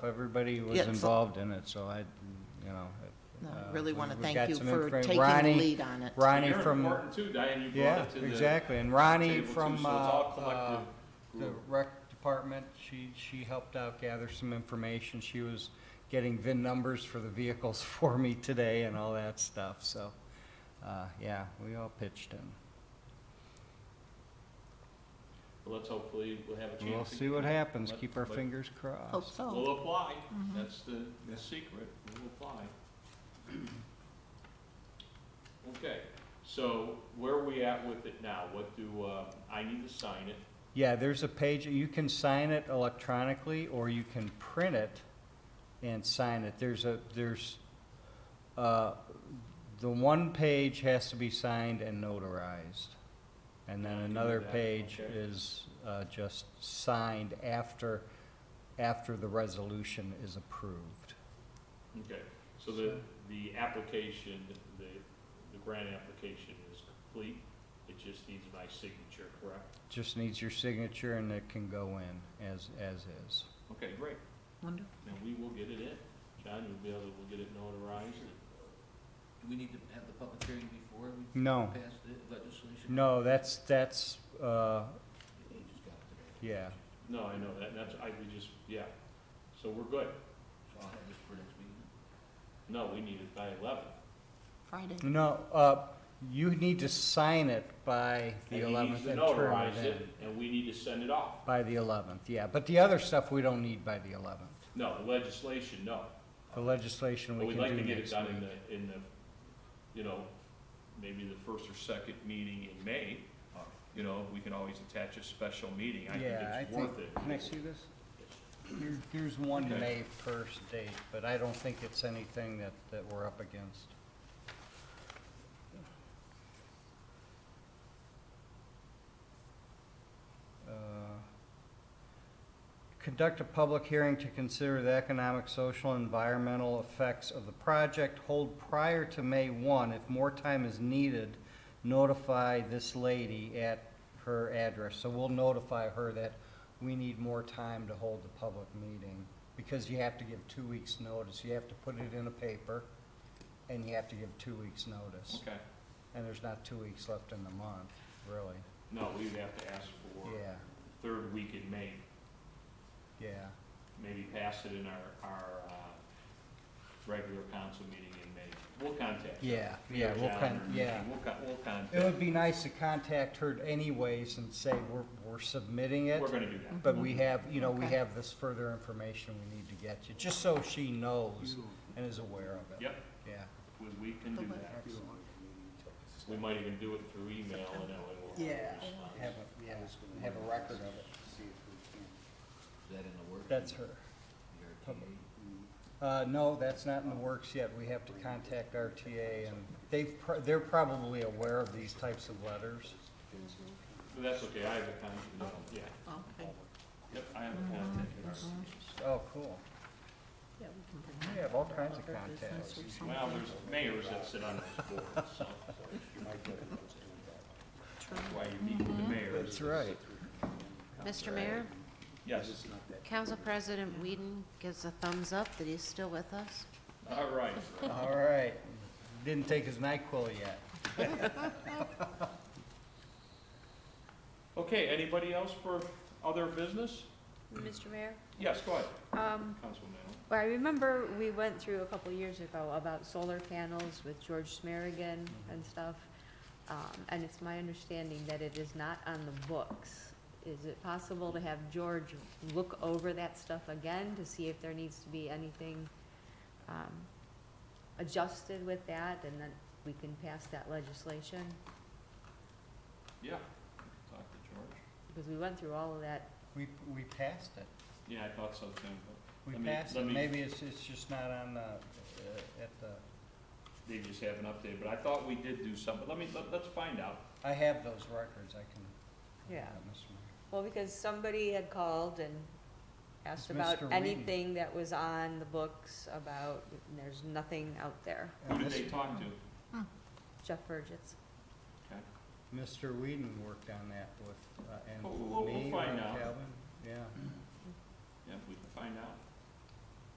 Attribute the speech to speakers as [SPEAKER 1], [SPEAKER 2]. [SPEAKER 1] If Everybody was
[SPEAKER 2] Yeah, so-
[SPEAKER 1] involved in it, so I, you know.
[SPEAKER 2] No, I
[SPEAKER 1] uh,
[SPEAKER 2] really wanna
[SPEAKER 1] we've
[SPEAKER 2] thank
[SPEAKER 1] got
[SPEAKER 2] you
[SPEAKER 1] some
[SPEAKER 2] for
[SPEAKER 1] infra-
[SPEAKER 2] taking the
[SPEAKER 1] Ronnie-
[SPEAKER 2] lead on it.
[SPEAKER 1] Ronnie
[SPEAKER 3] You're
[SPEAKER 1] from,
[SPEAKER 3] important too, Diane, you brought
[SPEAKER 1] yeah,
[SPEAKER 3] it to the.
[SPEAKER 1] exactly, and Ronnie
[SPEAKER 3] table too,
[SPEAKER 1] from,
[SPEAKER 3] so
[SPEAKER 1] uh,
[SPEAKER 3] it's all
[SPEAKER 1] uh,
[SPEAKER 3] collective
[SPEAKER 1] the
[SPEAKER 3] group.
[SPEAKER 1] rec department, she, she helped out gather some information. She was getting VIN numbers for the vehicles for me today and all that stuff, so, uh, yeah, we all pitched in.
[SPEAKER 3] But Let's hopefully, we'll have a chance.
[SPEAKER 1] We'll
[SPEAKER 3] to-
[SPEAKER 1] see what happens,
[SPEAKER 3] Let-
[SPEAKER 1] keep our
[SPEAKER 3] let-
[SPEAKER 1] fingers
[SPEAKER 2] Hope
[SPEAKER 1] crossed.
[SPEAKER 4] Oh.
[SPEAKER 2] so.
[SPEAKER 3] We'll apply, that's the, the secret, we'll apply. Okay, so where are we at with it now? What do, uh, I need to sign it?
[SPEAKER 1] Yeah, there's a page, you can sign it electronically, or you can print it and sign it. There's a, there's, uh, the one page has to be signed and notarized. And then
[SPEAKER 3] Yeah, I can do
[SPEAKER 1] another
[SPEAKER 3] that,
[SPEAKER 1] page
[SPEAKER 3] okay.
[SPEAKER 1] is uh, just signed after, after the resolution is approved.
[SPEAKER 3] Okay, so the, the application, the, the grant application is complete, it just needs my signature, correct?
[SPEAKER 1] Just needs your signature and it can go in as, as is.
[SPEAKER 3] Okay, great,
[SPEAKER 2] Wonderful.
[SPEAKER 3] then we will get it in. John, you'll be able, to- we'll get it notarized and
[SPEAKER 5] Do we need to have the public hearing before we
[SPEAKER 1] No,
[SPEAKER 5] pass the legislation?
[SPEAKER 1] no, that's, that's, uh,
[SPEAKER 5] You just got it today.
[SPEAKER 1] yeah.
[SPEAKER 3] No, I know, that, that's, I, we just, yeah, so we're good.
[SPEAKER 5] So I'll have this for next meeting.
[SPEAKER 3] No, we need it by eleven.
[SPEAKER 2] Friday.
[SPEAKER 1] No, uh, you need to sign it by the
[SPEAKER 3] And he needs
[SPEAKER 1] eleventh
[SPEAKER 3] to
[SPEAKER 1] and turn
[SPEAKER 3] notarize
[SPEAKER 1] it in.
[SPEAKER 3] And we need to send it off.
[SPEAKER 1] By the eleventh, yeah, but the other stuff we don't need by the eleventh.
[SPEAKER 3] No, the legislation, no.
[SPEAKER 1] The legislation
[SPEAKER 3] But
[SPEAKER 1] we
[SPEAKER 3] we'd
[SPEAKER 1] can
[SPEAKER 3] like to
[SPEAKER 1] do
[SPEAKER 3] get it
[SPEAKER 1] next
[SPEAKER 3] done in
[SPEAKER 1] week.
[SPEAKER 3] the, in the, you know, maybe the first or second meeting in May. Uh, You know, we can always attach a special meeting, I think
[SPEAKER 1] Yeah, I
[SPEAKER 3] it's
[SPEAKER 1] think,
[SPEAKER 3] worth it.
[SPEAKER 1] can I see this? Here- Here's one
[SPEAKER 3] Okay.
[SPEAKER 1] May first date, but I don't think it's anything that, that we're up against. Uh, Conduct a public hearing to consider the economic, social, and environmental effects of the project. Hold prior to May one. If more time is needed, notify this lady at her address. So we'll notify her that we need more time to hold the public meeting. Because you have to give two weeks' notice. You have to put it in a paper, and you have to give two weeks' notice.
[SPEAKER 3] Okay,
[SPEAKER 1] And there's not two weeks left in the month, really.
[SPEAKER 3] no, we would have to ask for
[SPEAKER 1] Yeah,
[SPEAKER 3] third week in May,
[SPEAKER 1] yeah.
[SPEAKER 3] maybe pass it in our, our, uh, regular council meeting in May. We'll contact. her.
[SPEAKER 1] Yeah,
[SPEAKER 3] Your
[SPEAKER 1] yeah, we'll
[SPEAKER 3] calendar
[SPEAKER 1] con-
[SPEAKER 3] meeting,
[SPEAKER 1] yeah.
[SPEAKER 3] We'll con- we'll contact.
[SPEAKER 1] It would be nice to contact her anyways and say, we're, we're submitting it,
[SPEAKER 3] We're gonna do that.
[SPEAKER 1] but we have, you know, we
[SPEAKER 2] Okay.
[SPEAKER 1] have this further information we need to get you, just so she knows and is aware of it.
[SPEAKER 3] Yep,
[SPEAKER 1] Yeah.
[SPEAKER 3] we, we can do that. We might even do it through email and then we'll.
[SPEAKER 1] Have a, yeah, have a record of it.
[SPEAKER 5] Is that in the works?
[SPEAKER 1] That's her.
[SPEAKER 5] The RTA?
[SPEAKER 1] public. Uh, no, that's not in the works yet. We have to contact RTA and they've, pr- they're probably aware of these types of letters.
[SPEAKER 3] But that's okay, I have a contact, no, yeah,
[SPEAKER 2] Oh, Okay.
[SPEAKER 3] yep, I have a contact in our system.
[SPEAKER 1] Oh, cool.
[SPEAKER 2] Yeah, we can bring
[SPEAKER 1] We have all kinds of
[SPEAKER 2] other business
[SPEAKER 1] contacts.
[SPEAKER 2] or something.
[SPEAKER 3] Well, there's mayors that sit on those boards, so
[SPEAKER 2] True.
[SPEAKER 3] that's why you meet with the mayors.
[SPEAKER 1] That's right.
[SPEAKER 6] Mr. Mayor,
[SPEAKER 3] Yes,
[SPEAKER 6] Council President Whedon gives a thumbs up that he's still with us.
[SPEAKER 3] all right,
[SPEAKER 1] All right. Didn't take his NyQuil yet.
[SPEAKER 3] okay, anybody else for other business?
[SPEAKER 4] Mr. Mayor,
[SPEAKER 3] Yes, go ahead,
[SPEAKER 4] um,
[SPEAKER 3] Councilman Allen.
[SPEAKER 4] well, I remember we went through a couple years ago about solar panels with George Smerigan and stuff. Um, and it's my understanding that it is not on the books. Is it possible to have George look over that stuff again to see if there needs to be anything, um, adjusted with that and then we can pass that legislation?
[SPEAKER 3] yeah, talk to George.
[SPEAKER 4] Because we went through all of that.
[SPEAKER 1] We, we passed it.
[SPEAKER 3] Yeah, I thought so too, but
[SPEAKER 1] We
[SPEAKER 3] Let me-
[SPEAKER 1] passed
[SPEAKER 3] let
[SPEAKER 1] it.
[SPEAKER 3] me-
[SPEAKER 1] Maybe it's, it's just not on the, uh, at the,
[SPEAKER 3] they just haven't updated, but I thought we did do something, let me, let, let's find out.
[SPEAKER 1] I have those records. I can.
[SPEAKER 4] Yeah.
[SPEAKER 1] Mr. Mayor.
[SPEAKER 4] Well, because somebody had called and asked
[SPEAKER 1] It's
[SPEAKER 4] about
[SPEAKER 1] Mr. Reedy.
[SPEAKER 4] anything that was on the books about, and there's nothing out there.
[SPEAKER 3] Who did
[SPEAKER 1] And
[SPEAKER 3] they talk to?
[SPEAKER 4] Jeff Burgess.
[SPEAKER 1] Mr. Whedon worked on that with, uh, and
[SPEAKER 3] We'll- we'll- we'll
[SPEAKER 1] me,
[SPEAKER 3] find
[SPEAKER 1] and
[SPEAKER 3] out.
[SPEAKER 1] Calvin, yeah.
[SPEAKER 3] Yeah, if we can find out.